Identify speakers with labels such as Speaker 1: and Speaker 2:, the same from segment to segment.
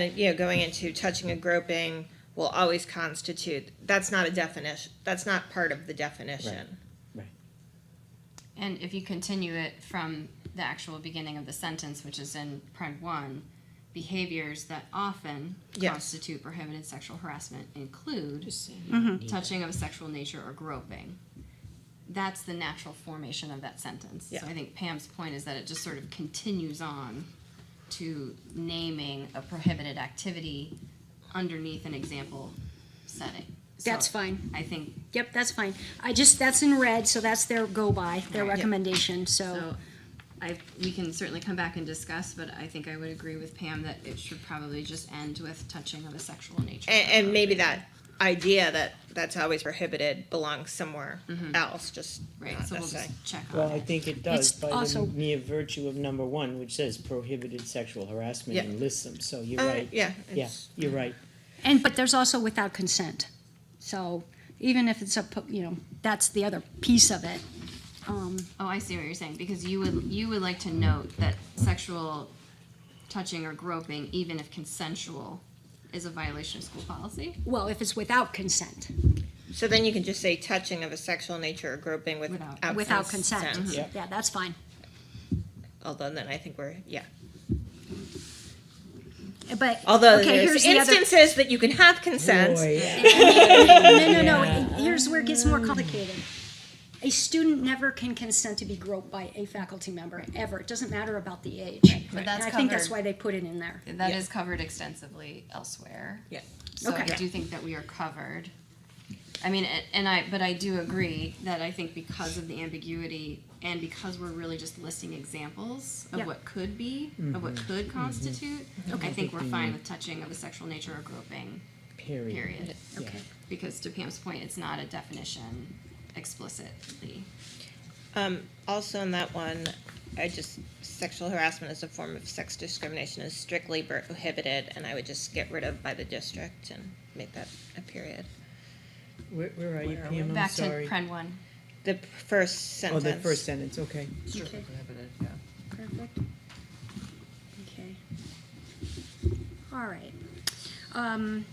Speaker 1: that, you know, going into touching and groping will always constitute, that's not a definition, that's not part of the definition.
Speaker 2: Right.
Speaker 3: And if you continue it from the actual beginning of the sentence, which is in print one, behaviors that often
Speaker 1: Yes.
Speaker 3: constitute prohibited sexual harassment include
Speaker 4: Just saying.
Speaker 3: touching of a sexual nature or groping. That's the natural formation of that sentence. So
Speaker 1: Yeah.
Speaker 3: I think Pam's point is that it just sort of continues on to naming a prohibited activity underneath an example setting. So
Speaker 4: That's fine.
Speaker 3: I think
Speaker 4: Yep, that's fine. I just, that's in red, so that's their go by, their
Speaker 3: Right. Yep.
Speaker 4: recommendation, so.
Speaker 3: So I, we can certainly come back and discuss, but I think I would agree with Pam that it should probably just end with touching of a sexual nature.
Speaker 1: And, and maybe that idea that that's always prohibited belongs somewhere
Speaker 4: Mm-hmm.
Speaker 1: else, just
Speaker 3: Right,
Speaker 1: not
Speaker 3: so we'll
Speaker 1: necessarily.
Speaker 3: just check
Speaker 2: Well,
Speaker 3: on
Speaker 2: I
Speaker 3: it.
Speaker 2: think it does
Speaker 4: It's
Speaker 2: by
Speaker 4: also-
Speaker 2: the mere virtue of number one, which says prohibited sexual harassment
Speaker 1: Yeah.
Speaker 2: and lists them. So you're
Speaker 1: Uh,
Speaker 2: right.
Speaker 1: yeah,
Speaker 2: Yeah,
Speaker 1: it's-
Speaker 2: you're right.
Speaker 4: And, but there's also without consent. So even if it's a, pu- you know, that's the other piece of it. Um,
Speaker 3: Oh, I see what you're saying, because you would, you would like to note that sexual touching or groping, even if consensual, is a violation of school policy
Speaker 4: Well, if it's without consent,
Speaker 1: So then you can just say touching of a sexual nature or groping
Speaker 3: Without-
Speaker 1: without.
Speaker 4: without consent. Mm-hmm.
Speaker 2: Yep.
Speaker 4: Yeah, that's fine.
Speaker 1: Although then I think we're, yeah.
Speaker 4: But,
Speaker 1: Although
Speaker 4: okay,
Speaker 1: there's
Speaker 4: here's the other.
Speaker 1: instances that you can have consent.
Speaker 3: uh,
Speaker 4: No, no, no, here's where it gets more complicated. A student never can consent to be groped by a faculty member, ever. It doesn't matter about the age.
Speaker 3: but
Speaker 4: And
Speaker 3: that's
Speaker 4: I think that's
Speaker 3: covered.
Speaker 4: why they put it in there.
Speaker 3: that
Speaker 1: Yeah.
Speaker 3: is covered extensively elsewhere.
Speaker 1: Yeah.
Speaker 3: So I
Speaker 4: Okay.
Speaker 3: do think that we are covered. I mean, a- and I, but I do agree that I think because of the ambiguity and because we're really just listing examples of
Speaker 4: Yeah.
Speaker 3: what could be, of
Speaker 2: Mm-hmm.
Speaker 3: what could constitute, I think we're fine with touching of a sexual nature or groping,
Speaker 2: Period.
Speaker 3: period.
Speaker 2: Yeah.
Speaker 3: Because to Pam's point, it's not a definition explicitly.
Speaker 1: Um, Also in that one, I just, sexual harassment as a form of sex discrimination is strictly prohibited, and I would just get rid of by the district and make that a period.
Speaker 2: Where, where are you,
Speaker 1: Where are we?
Speaker 2: Pam? I'm
Speaker 3: Back to
Speaker 2: sorry.
Speaker 3: Pren one.
Speaker 1: The p- first
Speaker 2: Oh,
Speaker 1: sentence.
Speaker 2: the first sentence, okay.
Speaker 4: Okay.
Speaker 5: prohibited, yeah.
Speaker 4: Perfect. Okay. All right. Um,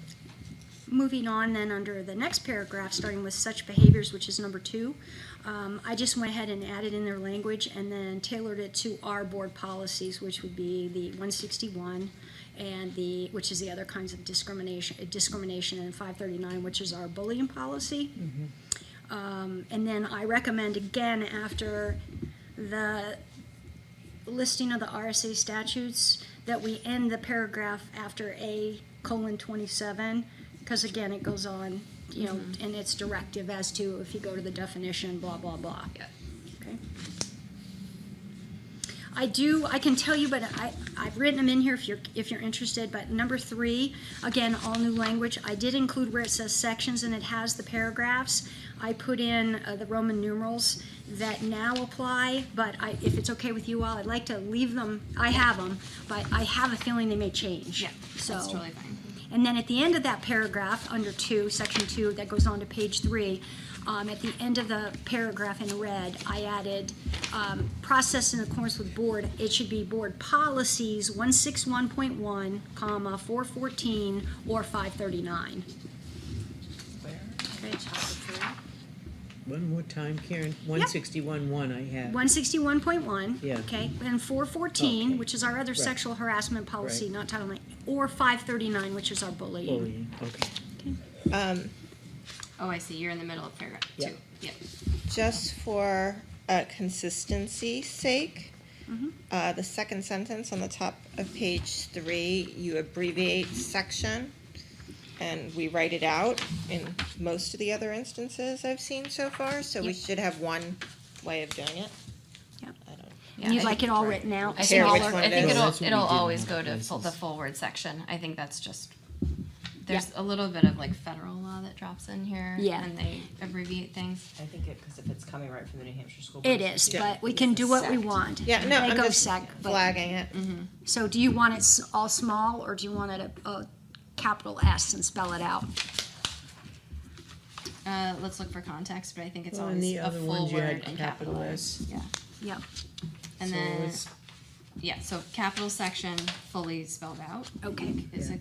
Speaker 4: Moving on then, under the next paragraph, starting with such behaviors, which is number two, um, I just went ahead and added in their language and then tailored it to our board policies, which would be the 161 and the, which is the other kinds of discrimination, discrimination, and 539, which is our bullying policy.
Speaker 5: Mm-hmm.
Speaker 4: Um, And then I recommend again after the listing of the RSA statutes that we end the paragraph after A colon twenty-seven, because again, it goes on, you know, and it's directive as to if you go to the definition, blah, blah, blah.
Speaker 3: Yeah.
Speaker 4: Okay. I do, I can tell you, but I, I've written them in here if you're, if you're interested, but number three, again, all new language, I did include where it says sections and it has the paragraphs. I put in uh, the Roman numerals that now apply, but I, if it's okay with you all, I'd like to leave them, I have them, but I have a feeling they may change.
Speaker 3: Yeah,
Speaker 4: So.
Speaker 3: that's totally fine.
Speaker 4: And then at the end of that paragraph, under two, section two, that goes on to page three, um, at the end of the paragraph in red, I added, um, process in accordance with board, it should be board policies one six one point one, comma, four fourteen, or five thirty-nine.
Speaker 2: One more time, Karen. One sixty-one, one I have.
Speaker 4: One sixty-one point one,
Speaker 2: Yeah.
Speaker 4: okay, and four fourteen,
Speaker 2: Okay.
Speaker 4: which is our other sexual harassment policy,
Speaker 2: Right.
Speaker 4: not Title IX, or five thirty-nine, which is our bullying.
Speaker 2: Bullying, okay.
Speaker 1: Um,
Speaker 3: Oh, I see, you're in the middle of paragraph
Speaker 2: Yeah.
Speaker 3: two. Yep.
Speaker 1: Just for uh, consistency sake,
Speaker 4: Mm-hmm.
Speaker 1: uh, the second sentence on the top of page three, you abbreviate section, and we write it out in most of the other instances I've seen so far, so we
Speaker 4: Yep.
Speaker 1: should have one way of doing it.
Speaker 4: Yep.
Speaker 1: I don't-
Speaker 4: And you'd like it all written out.
Speaker 3: I
Speaker 1: Care
Speaker 3: think,
Speaker 1: which
Speaker 3: it'll-
Speaker 1: one
Speaker 3: I
Speaker 1: it
Speaker 3: think
Speaker 1: is.
Speaker 2: Well,
Speaker 3: it'll
Speaker 2: that's what
Speaker 3: it'll
Speaker 2: we did in
Speaker 3: always
Speaker 2: other
Speaker 3: go to full, the
Speaker 2: places.
Speaker 3: full word section. I think that's just there's a little bit of like federal law that drops in here
Speaker 4: Yeah.
Speaker 3: and they abbreviate things.
Speaker 5: I think it, because if it's coming right from the New Hampshire school.
Speaker 4: It
Speaker 5: Board,
Speaker 4: is,
Speaker 5: it's
Speaker 4: but we
Speaker 5: it's
Speaker 4: can
Speaker 5: a
Speaker 4: do what we
Speaker 5: sect.
Speaker 4: want.
Speaker 1: Yeah, no,
Speaker 4: They
Speaker 1: I'm
Speaker 4: go
Speaker 1: just
Speaker 4: sec, but-
Speaker 1: flagging it.
Speaker 4: So do you want it s- all small, or do you want it a, a capital S and spell it out?
Speaker 3: Uh, let's look for context, but I think it's
Speaker 2: Well, and
Speaker 3: always
Speaker 2: the
Speaker 3: a
Speaker 2: other
Speaker 3: full
Speaker 2: ones you
Speaker 3: word
Speaker 2: had
Speaker 3: and
Speaker 2: capital S.
Speaker 3: Yeah.
Speaker 4: Yep,
Speaker 3: And
Speaker 2: So
Speaker 3: then
Speaker 2: it's-
Speaker 3: yeah, so capital section fully spelled out
Speaker 4: okay.
Speaker 3: is a